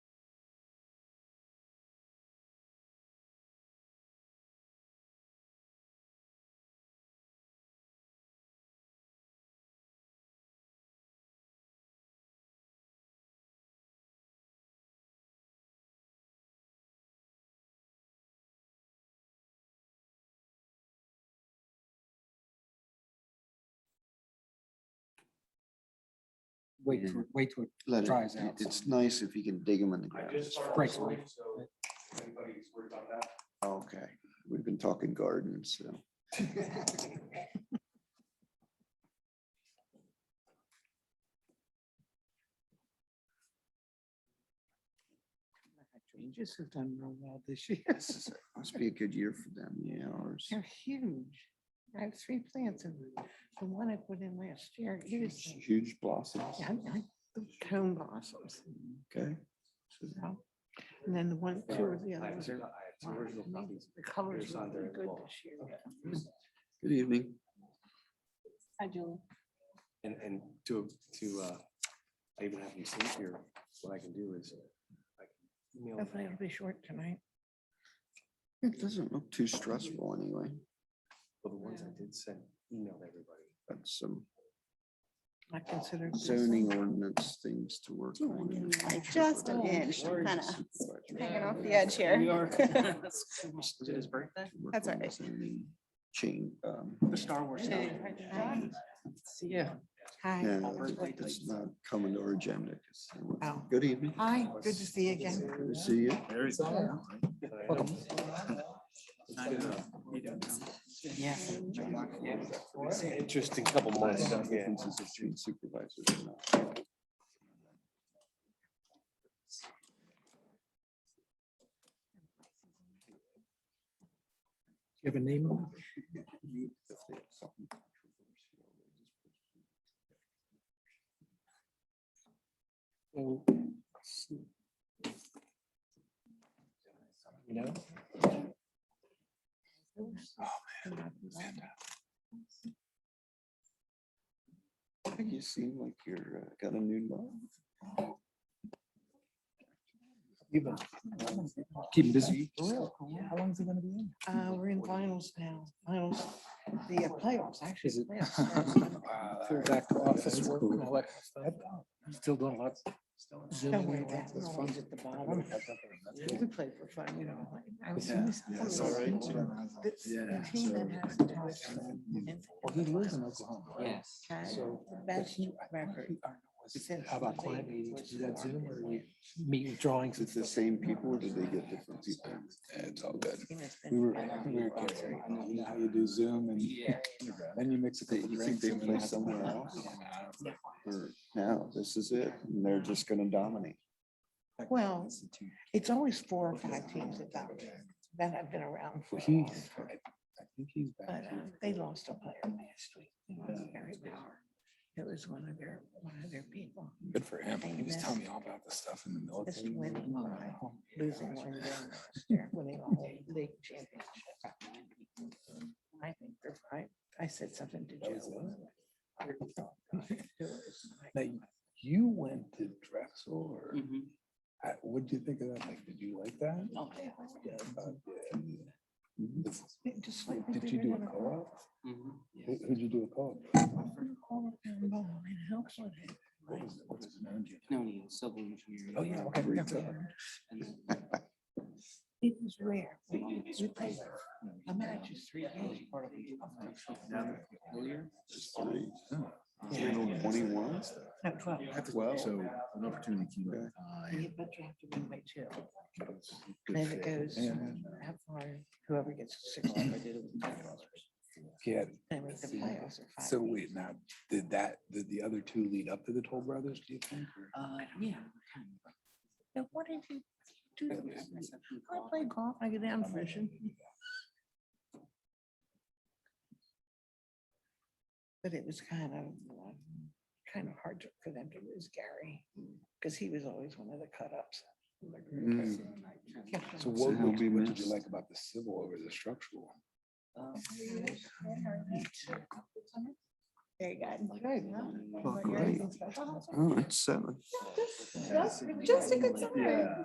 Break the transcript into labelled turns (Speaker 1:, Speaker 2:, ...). Speaker 1: wait,
Speaker 2: Yeah.
Speaker 1: till- wait till
Speaker 2: Let
Speaker 1: it
Speaker 2: it-
Speaker 1: dries out.
Speaker 2: It's nice if you can dig them in the
Speaker 3: I
Speaker 2: ground.
Speaker 3: just started
Speaker 1: Frank's
Speaker 3: this morning, so if anybody's worried about that.
Speaker 2: Okay, we've been talking gardens, so.
Speaker 1: Changes have done real well this year.
Speaker 2: Must be a good year for them, yeah, ours.
Speaker 4: They're huge. I have three plants and the one I put in last year, it was
Speaker 2: Huge huge blossoms,
Speaker 4: yeah, I- I- the cone blossoms.
Speaker 2: okay?
Speaker 4: so. And then the one, two of the
Speaker 3: I have
Speaker 4: others
Speaker 3: two-
Speaker 4: are.
Speaker 3: I have two
Speaker 4: fine.
Speaker 3: original
Speaker 4: I mean,
Speaker 3: copies.
Speaker 4: The colors
Speaker 3: Yours
Speaker 4: are
Speaker 3: aren't there
Speaker 4: really
Speaker 3: as
Speaker 4: good
Speaker 3: well.
Speaker 4: this year.
Speaker 2: Good evening.
Speaker 4: I do.
Speaker 3: And, and to, to, uh, I even have them sleep here, what I can do is. I can email them.
Speaker 4: Hopefully it'll be short tonight.
Speaker 2: It doesn't look too stressful anyway,
Speaker 3: Well, the ones I did send, email to everybody.
Speaker 2: That's some
Speaker 4: I considered. this-
Speaker 2: zoning ordinance things to work on.
Speaker 5: Just an inch, kind of hanging off the edge here.
Speaker 3: Did his birthday?
Speaker 5: That's all right.
Speaker 2: Chain, um,
Speaker 3: Star Wars. Yeah.
Speaker 4: Hi.
Speaker 2: no, that's not coming to our agenda. 'cause it was-
Speaker 4: Oh.
Speaker 2: Good evening.
Speaker 4: Hi, good to see you again.
Speaker 2: Good to see you.
Speaker 3: There is.
Speaker 4: Yes.
Speaker 3: Interesting couple months, yeah.
Speaker 2: Differences between supervisors and not.
Speaker 1: You have a name on it?
Speaker 2: if they have something controversial, they just push it.
Speaker 3: So, You know?
Speaker 4: Uh,
Speaker 2: I think you seem like you're, uh, got a new love.
Speaker 1: Keep him busy.
Speaker 4: How long is it gonna be in? Uh, we're in finals now, finals, the uh, playoffs, actually.
Speaker 1: Is it-
Speaker 4: the playoffs started.
Speaker 1: Full back to office work and all that stuff. Still doing lots.
Speaker 4: Don't worry about it, I'll leave it at the bottom. We play for fun, you know. like, I was in this-
Speaker 2: yeah, it's all right.
Speaker 4: The- the team that has the most wins
Speaker 1: Well, he lives in Oklahoma. right?
Speaker 4: has had
Speaker 1: So-
Speaker 4: the best record since
Speaker 1: How about
Speaker 4: the
Speaker 1: client
Speaker 4: league
Speaker 1: meetings?
Speaker 4: was
Speaker 1: Do that Zoom or
Speaker 4: started.
Speaker 1: do we meet with drawings?
Speaker 2: Is it the same people or do they get different people? It's all good.
Speaker 4: Team has
Speaker 6: We
Speaker 4: been-
Speaker 6: were, we were kids, right? you know how you do Zoom and then you mix a
Speaker 2: They-
Speaker 6: couple
Speaker 2: you think
Speaker 6: drinks.
Speaker 2: they
Speaker 6: and
Speaker 2: play
Speaker 6: then-
Speaker 2: somewhere else? Or now, this is it, and they're just gonna dominate.
Speaker 4: Well, it's always four or five teams that dominate, that have been around for. a
Speaker 6: He's,
Speaker 4: while.
Speaker 6: I I think he's back.
Speaker 4: But uh, they lost a player last week. They lost Barry Bauer. It was one of their, one of their people.
Speaker 6: Good for him. He was
Speaker 4: Amen.
Speaker 6: telling me all about this stuff in the
Speaker 4: Just
Speaker 6: military.
Speaker 4: winning, all right.
Speaker 6: Oh, my
Speaker 4: losing
Speaker 6: gosh.
Speaker 4: one game last year, winning a whole league championship. I think they're right. I said something to
Speaker 6: That was
Speaker 4: Joe. It was
Speaker 6: Now,
Speaker 4: like,
Speaker 6: you- you went to Drexel or,
Speaker 3: Mm-hmm.
Speaker 6: uh, what did you think of that? Like, did you like that?
Speaker 4: oh, yeah.
Speaker 6: Yeah, I thought, yeah.
Speaker 2: Mm-hmm.
Speaker 6: The-
Speaker 4: It Just like.
Speaker 6: Did you do a co-op? Who- Who'd you do a co-op? What was- what was his name? Do you know? Oh, yeah, okay. yeah, yeah.
Speaker 4: It was rare. We we played, I managed just three games. part of the-
Speaker 2: Just three.
Speaker 6: Yeah.
Speaker 2: Twenty-one?
Speaker 4: No, twelve.
Speaker 2: Well.
Speaker 7: So an opportunity came
Speaker 2: Yeah.
Speaker 7: up. I-
Speaker 4: Yeah, But you have to win by two.
Speaker 6: Good
Speaker 4: Then it
Speaker 6: fit.
Speaker 4: goes,
Speaker 6: And-
Speaker 4: how far, whoever gets to six. whoever did it with five dollars.
Speaker 6: Yeah,
Speaker 4: And with the playoffs are five.
Speaker 6: so
Speaker 4: games.
Speaker 6: wait, now, did that, did the other two lead up to the Toll Brothers, do you think? or-
Speaker 4: Uh, yeah. Now, what did you do?
Speaker 6: Yeah,
Speaker 4: this
Speaker 6: yeah.
Speaker 4: week? I play golf, I go down fishing. But it was kind of, uh, kind of hard to- for them to lose Gary, because he was always one of the cut ups.
Speaker 6: So what
Speaker 2: he'll
Speaker 6: would
Speaker 2: be
Speaker 6: you, what did you
Speaker 2: missed.
Speaker 6: like about the civil over the structural?
Speaker 4: uh,
Speaker 5: Very good.
Speaker 2: Oh, great. Oh, it's seven.
Speaker 5: Just a good summary.